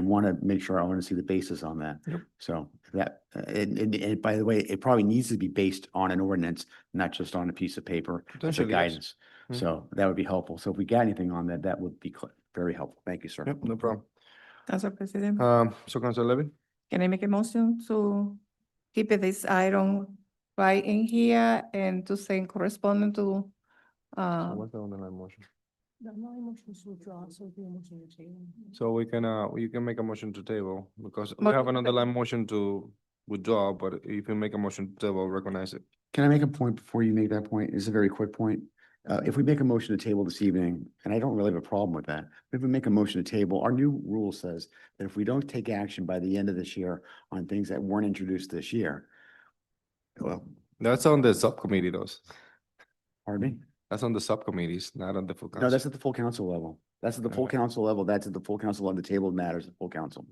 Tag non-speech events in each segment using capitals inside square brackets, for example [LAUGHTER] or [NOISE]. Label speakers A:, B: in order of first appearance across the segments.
A: want to make sure I want to see the basis on that.
B: Yep.
A: So that, uh, and, and, and by the way, it probably needs to be based on an ordinance, not just on a piece of paper as a
B: Potentially, yes.
A: guidance.
B: Mm.
A: So that would be helpful. So if we got anything on that, that would be cl- very helpful. Thank you, sir.
B: Yep, no problem.
C: Council President,
B: Um, so Council Levin,
C: can I make a motion to keep this item right in here and to send correspondent to, uh,
B: what's the underlying motion?
D: The my motion is withdrawn, so the motion is taken.
B: So we can, uh, you can make a motion to table because we
C: Mo-
B: have an underlying motion to withdraw, but if you make a motion to table, recognize it.
A: Can I make a point before you make that point? It's a very quick point. Uh, if we make a motion to table this evening, and I don't really have a problem with that, but if we make a motion to table, our new rule says that if we don't take action by the end of this year on things that weren't introduced this year, well,
B: That's on the subcommittee though.
A: pardon me?
B: That's on the subcommittees, not on the full
A: No,
B: council.
A: that's at the full council level. That's at the full
B: Okay.
A: council level. That's at the full council on the table of matters, at the full council.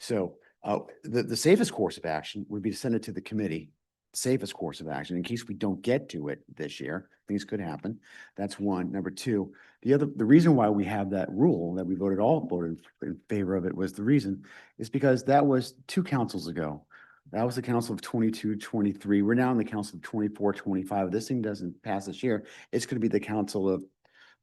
A: So, uh, the, the safest course of action would be to send it to the committee. Safest course of action, in case we don't get to it this year, things could happen. That's one. Number two, the other, the reason why we have that rule that we voted all voted in- in favor of it was the reason is because that was two councils ago. That was the council of 22, 23. twenty-three. We're now in the council of 24, 25. If This thing doesn't pass this year. It's gonna be the council of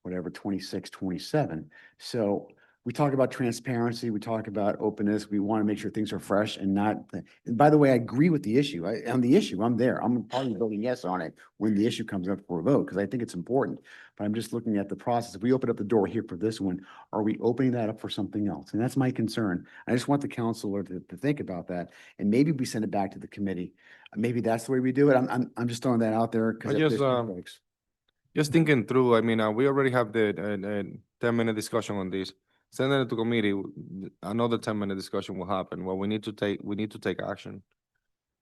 A: whatever, 26, 27. So we talk about transparency, we talk about openness, we want to make sure things are fresh and not, and by the way, I agree with the issue. I, on the issue, I'm there. I'm probably voting yes on it when the issue comes up for a vote, because I think it's important. But I'm just looking at the process. If we open up the door here for this one, are we opening that up for something else? And that's my concern. I just want the counselor to, to think about that. And maybe we send it back to the committee. Maybe that's the way we do it. I'm, I'm, I'm just throwing that out there. 'cause
B: I
A: if
B: just,
A: there's-
B: um, Just thinking through, I mean, uh, we already have the, uh, uh, ten minute discussion on this. Send it to committee, w- th- another ten minute discussion will happen. Well, we need to take, we need to take action.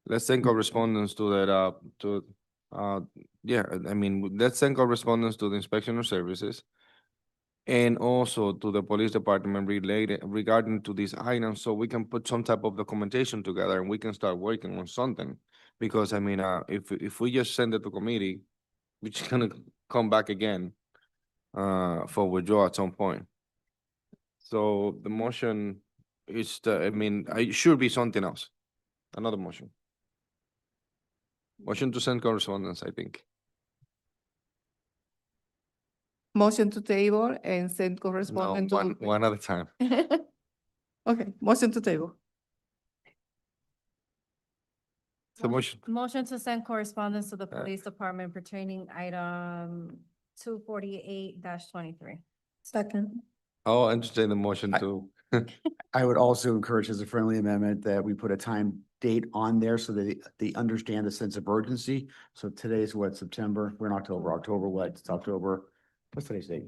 B: Let's send correspondence to that, uh, to, uh, yeah, I- I mean, w- let's send correspondence to the inspection of services. And also to the police department related regarding to these items, so we can put some type of documentation together and we can start working on something. Because I mean, uh, if, if we just send it to committee, we're just gonna come back again uh for withdrawal at some point. So the motion is the, I mean, uh, it should be something else. Another motion. Motion to send correspondence, I think.
C: motion to table and send
B: No,
C: correspondent
B: one,
C: to.
B: one at a time.
C: [LAUGHS] Okay, motion to table.
B: So motion,
E: Motion to send correspondence to the
B: Uh,
E: police department pertaining item two forty-eight twenty-three.
C: Second.
B: I'll entertain the motion
A: I-
B: to,
A: I would also encourage as a friendly amendment that we put a time date on there so that they- they understand the sense of urgency. So today's what, September? We're in October, October what? It's October, what's today's date?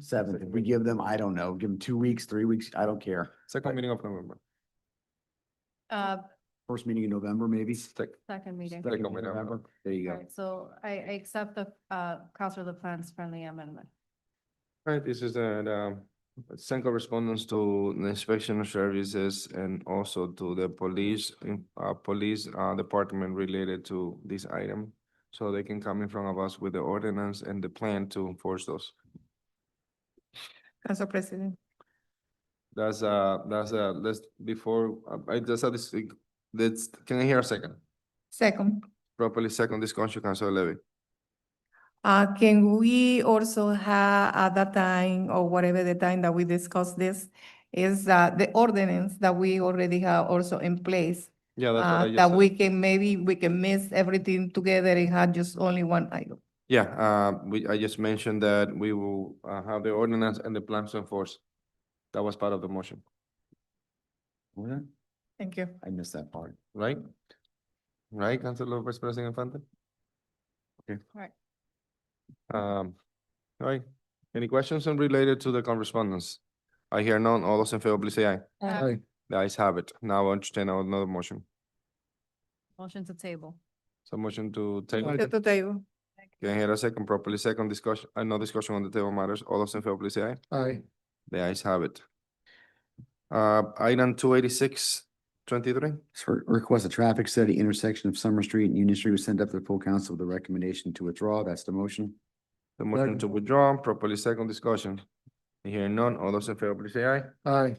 A: Seventh. If we give them, I don't know, give them two weeks, three weeks, I don't care.
B: second meeting of November.
E: Uh,
A: First meeting in November, maybe?
B: Sec-
E: second meeting.
A: Second
B: Second meeting.
A: November. There you go.
E: Alright, so I, I accept the, uh, Counselor LaPlante's friendly amendment.
B: All right, this is the, the send correspondence to the inspection services and also to the police, in- uh, police, uh, department related to this item. So they can come in front of us with the ordinance and the plan to enforce those.
C: Council President,
B: That's, uh, that's, uh, let's, before, uh, I just had this, that's, can I hear a second?
C: second.
B: Properly second discussion, Council Levy.
C: Uh, can we also have at that time or whatever the time that we discuss this is, uh, the ordinance that we already have also in place?
B: Yeah, that's
C: Uh,
B: what I just
C: that
B: said.
C: we can, maybe we can mix everything together and have just only one item.
B: Yeah, uh, we, I just mentioned that we will, uh, have the ordinance and the plans to enforce. That was part of the motion,
A: What?
C: Thank you.
A: I missed that part.
B: right? Right, Councilor Vice President Infante?
E: Correct.
B: Um, all right, any questions related to the correspondence? I hear none. All those in favor, please say aye.
E: Uh,
B: The ayes have it. Now I entertain another motion.
E: Motion to table.
B: So motion to table.
C: Motion to table.
B: Can I hear a second? Properly second discussion, uh, no discussion on the table matters. All those in favor, please say aye.
A: Aye.
B: The ayes have it. Uh, item two eighty-six twenty-three.
A: So request a traffic study intersection of Summer Street and Union Street was sent up to the full council with a recommendation to withdraw. That's the motion.
B: The motion to withdraw, properly second discussion. Hearing none, all those in favor, please say aye.
A: Aye.